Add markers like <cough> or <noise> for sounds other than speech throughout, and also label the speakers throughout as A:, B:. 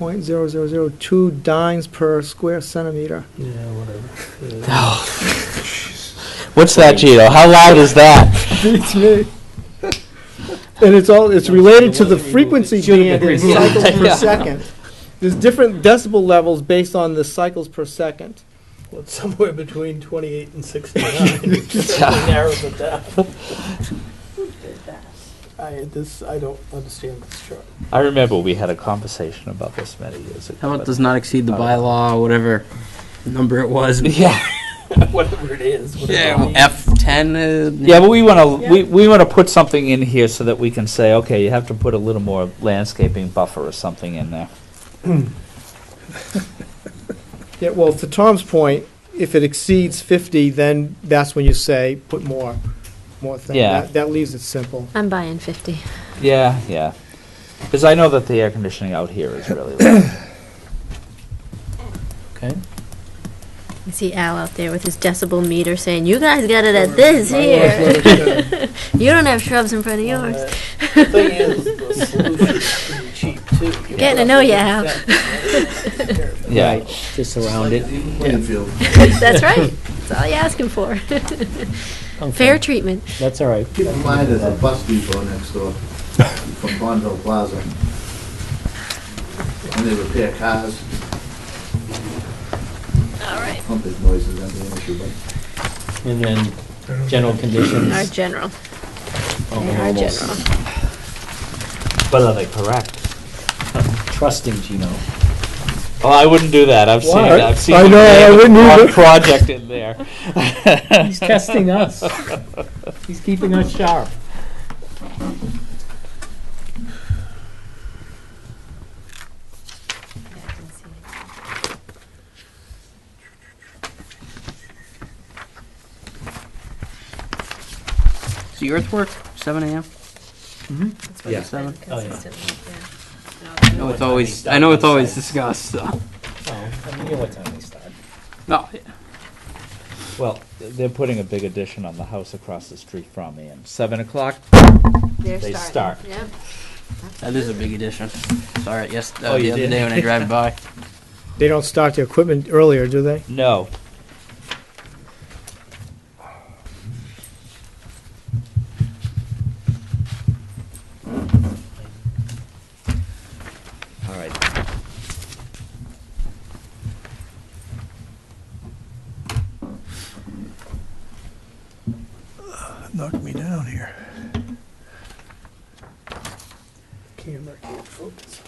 A: point zero zero zero two dynes per square <laughs> centimeter.
B: <laughs>
C: Yeah, whatever. Yeah.
D: What's that, Gino? How loud is that?
A: Beats me. And it's all, it's related to the frequency band in
D: Yeah.
A: cycles per
D: Yeah.
A: second. There's different decibel levels based on the cycles per second.
C: Well, it's somewhere between 28 and 69.
A: <laughs>
C: <laughs> That narrows it down. I, this, I don't understand this
A: <laughs>
C: chart.
D: I remember we had a conversation about this many years ago.
B: How about
D: but-
B: does not exceed the bylaw, or whatever number it was?
D: <laughs>
A: <laughs>
D: Yeah,
C: Whatever it is. whatever it means.
B: F ten. Uh,
D: yeah, but we want to, we, we want to put something in here so that we can say, okay, you have to put a little more landscaping buffer or something in there.
A: Yeah, well, to Tom's point, if it exceeds fifty, then that's when you say, put more, more thing.
D: Yeah.
A: That- That leaves it simple.
E: I'm buying 50.
D: Yeah, yeah. Because I know that the air conditioning out here is
A: <laughs>
D: really loud. Okay.
E: I see Al out there with his decibel meter saying, "You guys got it at this <laughs> here. You don't have shrubs in front of
C: Uh,
E: yours." <laughs>
C: The thing is, the solution's pretty cheap, too. You
E: Getting to know
C: have
E: ya, Al.
C: look at
E: <laughs>
C: that.
D: Yeah.
B: Just around it.
E: That's right. That's all you're asking for. <laughs> Fair treatment.
B: That's all right.
F: Keep in mind, there's a bus depot next door from Bonneville Plaza. And they repair cars,
E: All right,
F: pumping noises, that's the issue, but
G: And then general
E: our
G: conditions.
E: general.
G: Oh,
E: Our
G: almost
E: general.
D: But are they correct?
G: Trusting Gino.
D: Well, Oh, I wouldn't do that. I've seen,
A: Why?
D: I've seen.
A: I
D: the
A: know, I
D: name of
A: wouldn't
D: the
A: either.
D: wrong Project in
A: <laughs>
D: there.
G: He's
D: <laughs>
G: testing us. He's keeping us sharp.
B: So your earthwork, seven a.m.
D: Yeah.
B: Seven.
G: Oh, yeah.
B: No, it's always. I know it's always discussed. So.
G: Oh, I mean, you know what time they start.
B: No.
D: Well, they're putting a big addition on the house across the street from me, and seven o'clock, They
E: They
D: start.
E: Yep.
B: That is a big addition. Saw it yes uh,
D: Oh,
B: the
D: you
B: other
D: did?
B: day when I drive
D: <laughs>
B: by.
A: They don't start the equipment earlier, do they?
D: no. All right,
C: Knock me down here. Camera can't focus.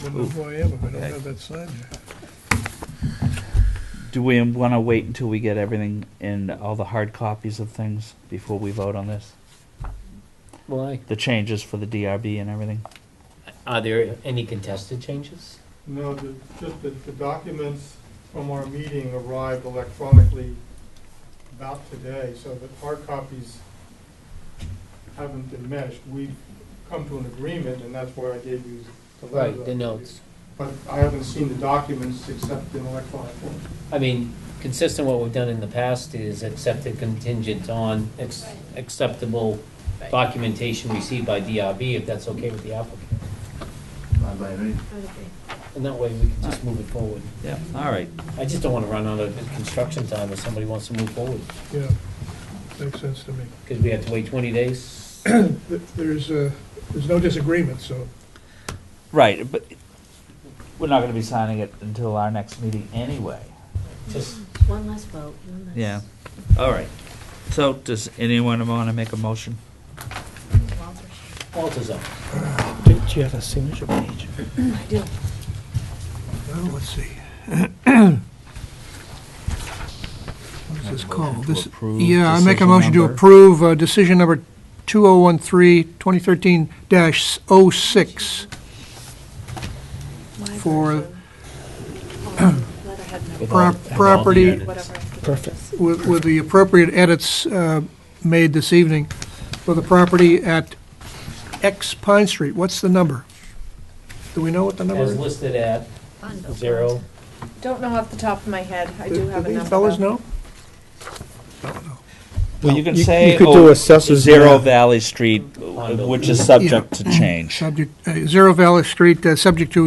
C: I don't know who I am if I don't have that sign here.
D: do we want to wait until we get everything and all the hard copies of things before we vote on this?
G: Why?
D: The changes for the DRB and everything?
G: Are there any contested changes?
H: No, the, just that the documents from our meeting arrived electronically about today, so that hard copies haven't been meshed. We've come to an agreement, and that's why I gave you the letter.
G: Right, the notes.
H: But I haven't seen the documents except in electronic form.
G: I mean, consistent what we've done in the past is accepted contingent on ex- acceptable documentation received by DRB, if that's okay with the applicant.
F: not by any,
G: And that way, we can just move it forward.
D: Yeah. All right,
G: I just don't want to run out of construction time if somebody wants to move forward,
H: Yeah, makes sense to me.
G: because we have to wait 20 days.
H: There's, uh, there's no disagreement, so.
D: right, but we're not going to be signing it until our next meeting anyway.
G: Just
E: One less vote. One less.
D: Yeah, all right. So, does anyone want to make a motion?
G: Walter's up.
C: Did you have a signature page?
E: I do.
C: Well, let's see. <clears throat> What is this called?
D: to
C: This-
D: approve
C: Yeah, I make a
D: decision
C: motion to
D: number?
C: approve uh, decision number 2013-2013-06 for Pro- property-
G: Perfect.
C: with with the appropriate edits uh, made this evening for the property at X Pine Street. What's the number? Do we know what the number
G: As
C: is?
G: listed at zero,
I: Don't know off the top of my head. I do have a
C: these
I: number.
C: fellas
I: though.
C: know?
D: Well, you can
A: You-
D: say.
A: you could
D: oh,
A: do assessors
D: Zero
A: map.
D: Valley Street, which is subject to change.
C: Subject, uh, Zero Valley Street, uh, subject to